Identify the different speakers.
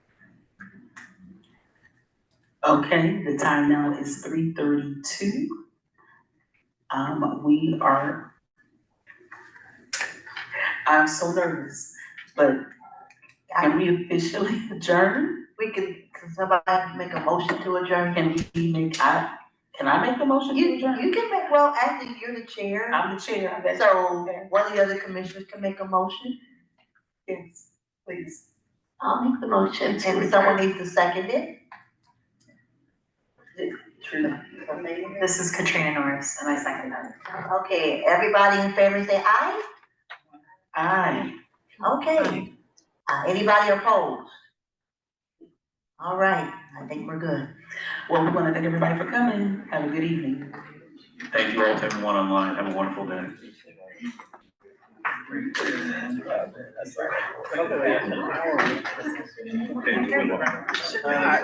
Speaker 1: Okay, the time now is three thirty-two. Um, we are. I'm so nervous, but can we officially adjourn?
Speaker 2: We can, can somebody make a motion to adjourn?
Speaker 1: Can we make, I, can I make a motion
Speaker 2: You,
Speaker 1: to
Speaker 2: you
Speaker 1: adjourn?
Speaker 2: can make, well, actually, you're the chair,
Speaker 1: I'm the chair, that's.
Speaker 2: so one of the other commissioners can make a motion.
Speaker 1: Yes, please.
Speaker 2: I'll make the motion. And someone needs to second it.
Speaker 1: True.
Speaker 3: This is Katrina Norris, and I second that.
Speaker 2: Okay, everybody in favor say aye?
Speaker 1: Aye.
Speaker 2: Okay. Uh, anybody opposed? All right, I think we're good.
Speaker 1: Well, we wanna thank everybody for coming. Have a good evening.
Speaker 4: Thank you all to everyone online. Have a wonderful day.